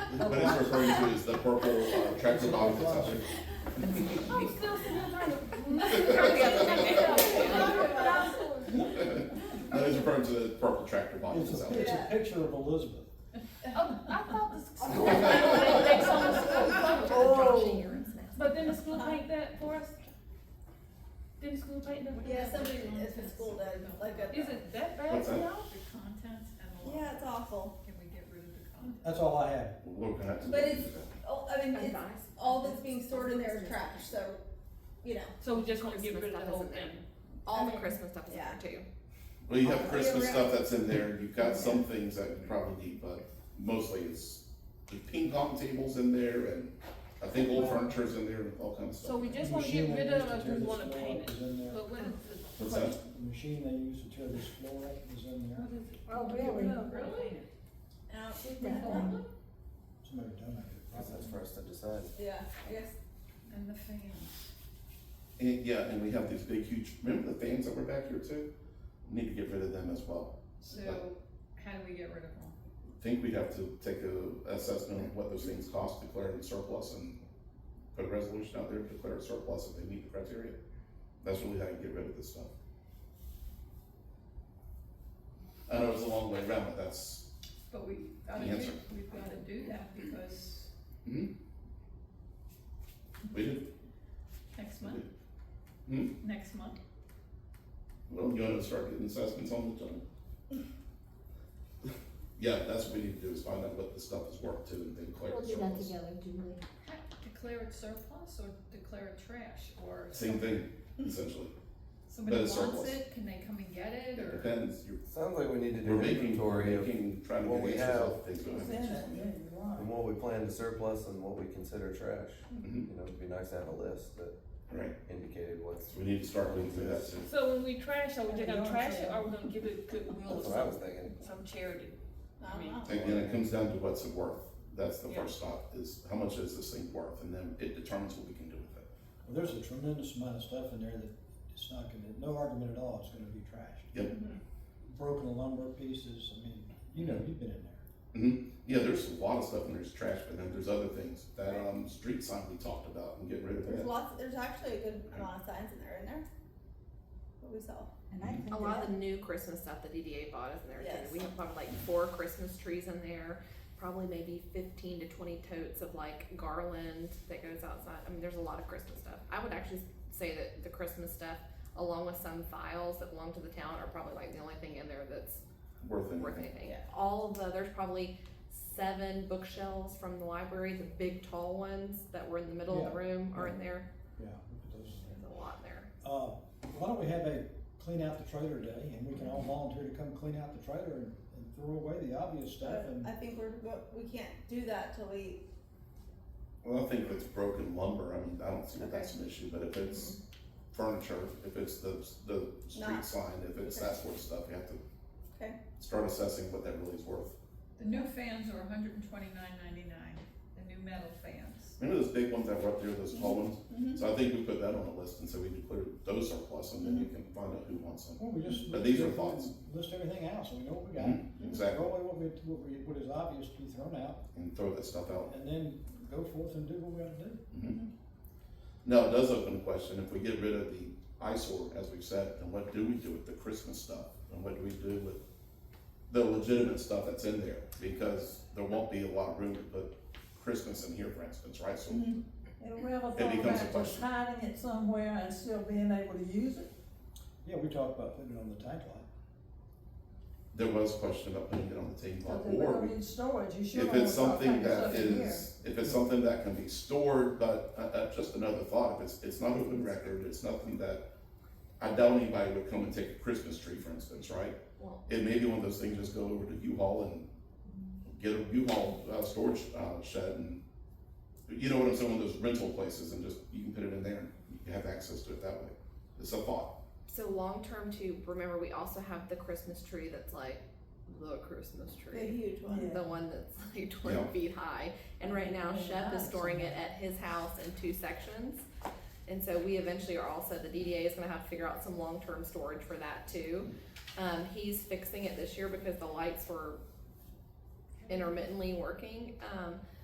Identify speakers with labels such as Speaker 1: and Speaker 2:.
Speaker 1: What it's referring to is the purple uh, tractor dog that's out there.
Speaker 2: I'm still sitting there trying to.
Speaker 1: No, it's referring to the purple tractor dog
Speaker 3: It's
Speaker 1: that's
Speaker 3: a,
Speaker 1: out
Speaker 3: it's
Speaker 1: there.
Speaker 3: a picture of Elizabeth.
Speaker 2: Oh, I thought the school. They told the school closed. But then the school paint that for us? Didn't school paint that?
Speaker 4: Yeah, somebody, it's the school does, like a.
Speaker 2: Is it that bad
Speaker 1: What's that?
Speaker 2: now?
Speaker 5: The contents and the law.
Speaker 4: Yeah, it's awful,
Speaker 5: Can we get rid of the contents?
Speaker 3: That's all I have.
Speaker 1: We're gonna have to-
Speaker 4: but it's, oh, I mean, it's, all that's being stored in there is trash, so, you know,
Speaker 2: So we just wanna get rid of the whole thing?
Speaker 4: all the Christmas.
Speaker 6: Christmas stuff is in
Speaker 4: Yeah.
Speaker 6: there too.
Speaker 1: Well, you have Christmas
Speaker 4: Year
Speaker 1: stuff that's in there, you've got some things that you probably need, but mostly it's the ping pong tables in there and I think old furniture's in there and all kinds of
Speaker 2: So
Speaker 1: stuff.
Speaker 2: we just wanna
Speaker 3: Machine
Speaker 2: get rid
Speaker 3: they
Speaker 2: of
Speaker 3: used to
Speaker 2: it,
Speaker 3: tear
Speaker 2: or we
Speaker 3: this
Speaker 2: wanna
Speaker 3: floor
Speaker 2: paint
Speaker 3: up
Speaker 2: it?
Speaker 3: is in there.
Speaker 2: But what is the?
Speaker 1: What's that?
Speaker 3: The machine they used to tear this floor up is in there.
Speaker 2: what is it?
Speaker 7: Oh, really?
Speaker 2: Really?
Speaker 4: Out,
Speaker 3: Somebody donated.
Speaker 8: Because that's for us to decide.
Speaker 4: yeah, I guess,
Speaker 5: And the fans.
Speaker 1: And, yeah, and we have these big huge, remember the fans that were back here too? Need to get rid of them as well.
Speaker 5: So how do we get rid of them?
Speaker 1: I Think we'd have to take a assessment of what those things cost, declare it surplus and put a resolution out there, to declare it surplus if they meet the criteria. That's really how you get rid of this stuff. I know it's a long way around, but that's,
Speaker 5: But we, I
Speaker 1: The
Speaker 5: mean,
Speaker 1: answer.
Speaker 5: we- we've gotta do that because
Speaker 1: hmm? We did
Speaker 5: next month.
Speaker 1: Hmm?
Speaker 5: Next month.
Speaker 1: Well, you wanna start getting assessments on the time? Yeah, that's what we need to do, is find out what the stuff is worth to and then collect
Speaker 7: We'll
Speaker 1: the
Speaker 7: do that
Speaker 1: surplus.
Speaker 7: together, Julie.
Speaker 5: Ha- Declare it surplus or declare it trash or
Speaker 1: Same thing, essentially.
Speaker 5: somebody
Speaker 1: But it's
Speaker 5: wants
Speaker 1: surplus.
Speaker 5: it, can they come and get it
Speaker 1: It
Speaker 5: or?
Speaker 1: depends, you're,
Speaker 8: Sounds like we need to do
Speaker 1: we're
Speaker 8: an
Speaker 1: making, we're
Speaker 8: inventory of
Speaker 1: making, trying
Speaker 8: what
Speaker 1: to
Speaker 8: we
Speaker 1: get
Speaker 8: have.
Speaker 1: answers off things we don't have answers on
Speaker 3: Yeah,
Speaker 1: yet.
Speaker 3: you're right.
Speaker 8: and what we plan to surplus and what we consider trash.
Speaker 1: Mhm.
Speaker 8: You know, it'd be nice to have a list that
Speaker 1: Right,
Speaker 8: indicated what's.
Speaker 1: so we need to start going through that soon.
Speaker 2: So when we trash, are we just gonna trash it, or are we gonna give it goodwill
Speaker 8: That's
Speaker 2: or
Speaker 8: what I was
Speaker 2: some,
Speaker 8: thinking.
Speaker 2: some charity?
Speaker 4: I don't know.
Speaker 1: Again, it comes down to what's it worth, that's the
Speaker 2: Yeah.
Speaker 1: first stop, is how much is this thing worth, and then it determines what we can do with it.
Speaker 3: Well, there's a tremendous amount of stuff in there that it's not gonna, no argument at all, it's gonna be trashed.
Speaker 1: Yep.
Speaker 2: Mm-hmm.
Speaker 3: Broken lumber pieces, I mean, you know, you've been in there.
Speaker 1: hmm yeah, there's a lot of stuff and there's trash, but then there's other things, that, um, street sign we talked about and getting rid of
Speaker 4: there's
Speaker 1: that.
Speaker 4: lots, there's actually a good amount of signs in there, in there? What we saw,
Speaker 7: And I think
Speaker 6: A lot
Speaker 7: that,
Speaker 6: of the new Christmas stuff the DDA bought is in there
Speaker 4: Yes.
Speaker 6: too. We have probably like four Christmas trees in there, probably maybe fifteen to twenty totes of like garland that goes outside. I mean, there's a lot of Christmas stuff. I would actually say that the Christmas stuff, along with some files that belong to the town, are probably like the only thing in there that's
Speaker 1: Worth
Speaker 6: worth
Speaker 1: anything.
Speaker 6: anything.
Speaker 4: Yeah.
Speaker 6: All of the, there's probably seven bookshelves from the library, the big tall ones that were in the middle of the room are in there.
Speaker 3: Yeah, look at those in there.
Speaker 6: There's a lot in there.
Speaker 3: Uh, why don't we have a clean out the trailer day and we can all volunteer to come clean out the trailer and, and throw away the obvious stuff
Speaker 2: Uh,
Speaker 4: but
Speaker 3: and.
Speaker 4: I think we're, but we can't do that till we,
Speaker 1: Well, I think if it's broken lumber, I mean, I don't see that that's an issue, but if it's furniture, if it's the, the
Speaker 4: Not-
Speaker 1: street sign, if it's that sort of stuff, you have to
Speaker 4: Okay.
Speaker 1: start assessing what that really is worth.
Speaker 5: The new fans are 129.99. the new metal fans.
Speaker 1: Remember those big ones that were up there, those tall ones?
Speaker 4: Mhm.
Speaker 1: So I think we put that on the list and so we declare those surplus and then you can find out who wants them.
Speaker 3: Well, we just.
Speaker 1: But these are
Speaker 3: list-
Speaker 1: thoughts.
Speaker 3: List everything out, so we know what we got.
Speaker 1: Mhm, exactly.
Speaker 3: Throw away what we, what we, what is obvious to be thrown out,
Speaker 1: And throw that stuff out.
Speaker 3: and then go forth and do what we gotta do.
Speaker 1: No, it does open a question. If we get rid of the eyesore, as we've said, then what do we do with the Christmas stuff? And what do we do with the legitimate stuff that's in there? Because there won't be a lot of room to put Christmas in here, for instance, right? So
Speaker 7: Have we ever
Speaker 1: It thought becomes a about just question.
Speaker 7: hiding it somewhere and still being able to use it?
Speaker 3: Yeah, we talked about putting it on the tank lot.
Speaker 1: there was a question about putting it on the table.
Speaker 7: Cause
Speaker 1: Or
Speaker 7: don't
Speaker 1: we-
Speaker 7: need storage, you sure
Speaker 1: if
Speaker 7: don't
Speaker 1: it's
Speaker 7: want to
Speaker 1: something
Speaker 7: pack
Speaker 1: that
Speaker 7: stuff in here.
Speaker 1: is, if it's something that can be stored, but, uh, uh, just another thought, if it's, it's not open record, it's nothing that, I doubt anybody would come and take a Christmas tree, for instance, right?
Speaker 6: Well-
Speaker 1: It may be one of those things, just go over to U-Haul and get a U-Haul, uh, storage, uh, shed and, you know what I'm saying, one of those rental places and just, you can put it in there and you have access to it that way. It's a thought.
Speaker 6: So long term too, remember we also have the Christmas tree that's like the Christmas
Speaker 4: the
Speaker 6: tree.
Speaker 4: huge one.
Speaker 6: The one that's like twenty
Speaker 1: Yeah.
Speaker 6: feet high. And right now
Speaker 7: Yeah,
Speaker 6: Shep is
Speaker 7: nice.
Speaker 6: storing it at his house in two sections. And so we eventually are also, the DDA is gonna have to figure out some long term storage for that too. Um, he's fixing it this year because the lights were intermittently working. Um,